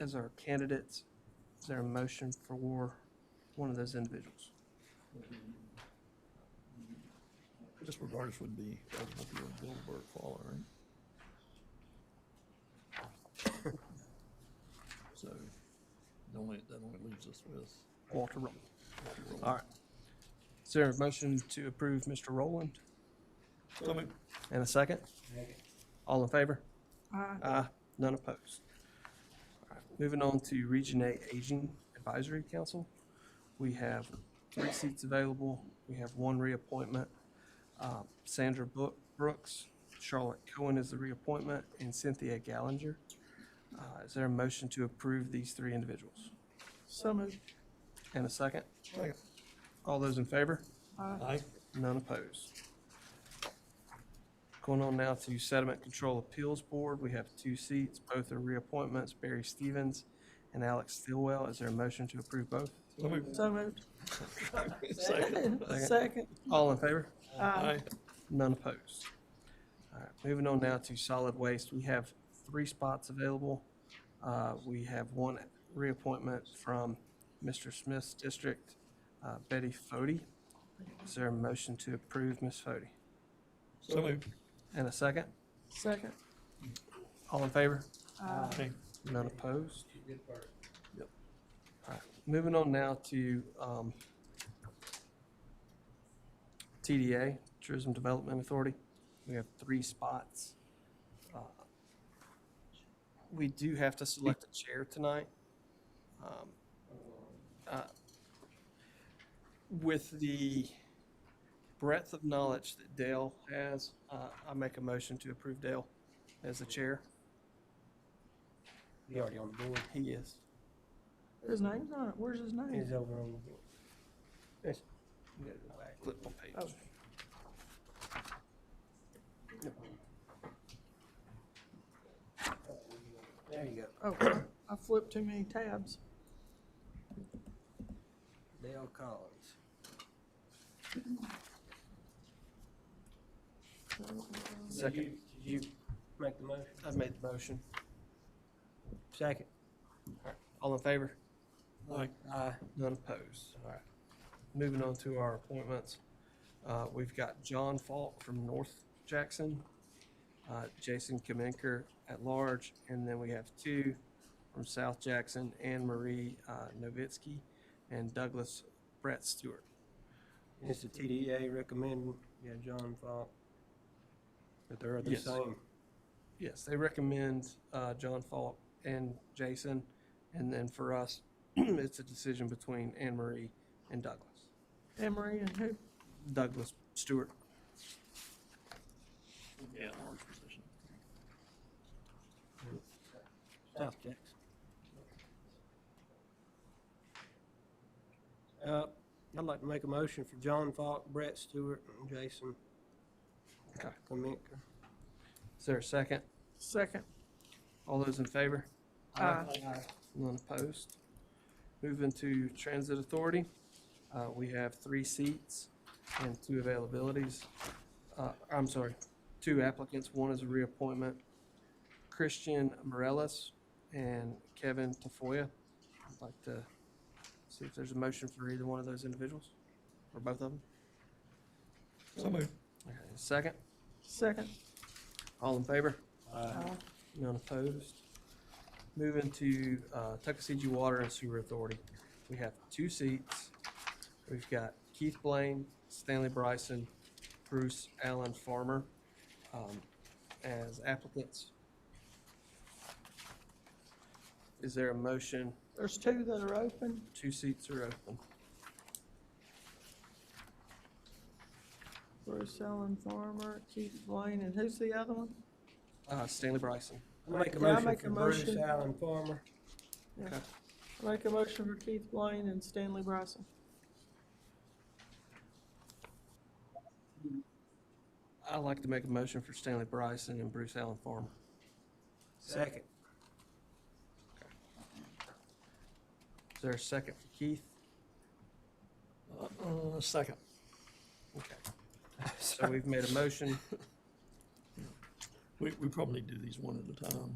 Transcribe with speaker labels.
Speaker 1: as our candidates. Is there a motion for one of those individuals?
Speaker 2: This regardless would be eligible for your Bill Burke Fall, all right? So, that only, that only leaves us with.
Speaker 1: Walter Rowland. All right. Is there a motion to approve Mr. Rowland
Speaker 2: Coming.
Speaker 1: and a second? All in favor?
Speaker 3: Aye.
Speaker 1: Aye. None opposed. All right, Moving on to Region Eight Aging Advisory Council. We have three seats available. We have one reappointment. Uh, Sandra Book- Brooks, Charlotte Cohen is the reappointment, and Cynthia Gallinger. Uh, Is there a motion to approve these three individuals?
Speaker 2: So moved.
Speaker 1: And a second?
Speaker 2: Second.
Speaker 1: All those in favor?
Speaker 2: Aye.
Speaker 1: None opposed. Going on now to Sediment Control Appeals Board, we have two seats, both are reappointments, Barry Stevens and Alex Stillwell. Is there a motion to approve both?
Speaker 2: So moved.
Speaker 3: So moved.
Speaker 2: Second.
Speaker 3: Second.
Speaker 1: All in favor?
Speaker 2: Aye.
Speaker 1: None opposed. All right, moving on now to Solid Waste, we have three spots available. Uh, we have one reappointment from Mr. Smith's district, uh, Betty Fode. Is there a motion to approve Ms. Fode?
Speaker 2: So moved.
Speaker 1: And a second?
Speaker 3: Second.
Speaker 1: All in favor?
Speaker 3: Aye.
Speaker 2: Aye.
Speaker 1: None opposed?
Speaker 2: Yep.
Speaker 1: All right, moving on now to um, TDA, Tourism Development Authority. We have three spots. Uh, We do have to select a chair tonight. Um, uh, With the breadth of knowledge that Dale has, uh, I make a motion to approve Dale as the chair.
Speaker 4: He already on the board.
Speaker 1: He is.
Speaker 3: His name's on it. Where's his name?
Speaker 4: He's over on the board. That's, you gotta go back.
Speaker 1: Flip on page.
Speaker 3: Oh.
Speaker 4: There you go.
Speaker 3: Oh, I flipped too many tabs.
Speaker 4: Dale Collins. Did you,
Speaker 1: Second,
Speaker 4: did you make the motion?
Speaker 1: I've made the motion.
Speaker 4: Second.
Speaker 1: All in favor?
Speaker 2: Aye.
Speaker 4: Aye.
Speaker 1: None opposed. All right. Moving on to our appointments. Uh, we've got John Falk from North Jackson, uh, Jason Kamenker at large, and then we have two from South Jackson, Anne Marie, uh, Novitsky and Douglas Brett Stewart.
Speaker 4: It's the TDA recommending, yeah, John Falk. But they're the
Speaker 1: Yes.
Speaker 4: same.
Speaker 1: Yes, they recommend, uh, John Falk and Jason, and then for us, it's a decision between Anne Marie and Douglas.
Speaker 3: Emery and who?
Speaker 1: Douglas Stewart.
Speaker 2: Yeah, orange position.
Speaker 4: South Jackson. Uh, I'd like to make a motion for John Falk, Brett Stewart, and Jason
Speaker 1: Okay.
Speaker 4: Kaminka.
Speaker 1: Is there a second?
Speaker 3: Second.
Speaker 1: All those in favor?
Speaker 3: Aye.
Speaker 1: None opposed. Moving to Transit Authority, uh, we have three seats and two availabilities. Uh, I'm sorry, two applicants, one is a reappointment, Christian Morellis and Kevin Tafoya. I'd like to see if there's a motion for either one of those individuals, or both of them.
Speaker 2: So moved.
Speaker 1: Okay, Second,
Speaker 3: Second.
Speaker 1: all in favor?
Speaker 3: Aye.
Speaker 1: None opposed. Moving to uh, Tuckasegee Water and Sewer Authority. We have two seats. We've got Keith Blaine, Stanley Bryson, Bruce Allen Farmer um, as applicants. Is there a motion?
Speaker 3: There's two that are open.
Speaker 1: Two seats are open.
Speaker 3: Bruce Allen Farmer, Keith Blaine, and who's the other one?
Speaker 1: Uh, Stanley Bryson.
Speaker 4: I Make a
Speaker 3: Can I
Speaker 4: motion
Speaker 3: make
Speaker 4: for
Speaker 3: a
Speaker 4: Bruce
Speaker 3: motion?
Speaker 4: Allen Farmer.
Speaker 3: Yeah.
Speaker 1: Okay.
Speaker 3: I Make a motion for Keith Blaine and Stanley Bryson.
Speaker 1: I'd like to make a motion for Stanley Bryson and Bruce Allen Farmer.
Speaker 4: Second.
Speaker 1: Is there a second for Keith?
Speaker 2: Uh, second.
Speaker 1: Okay. So we've made a motion.
Speaker 2: We, we probably do these one at a time.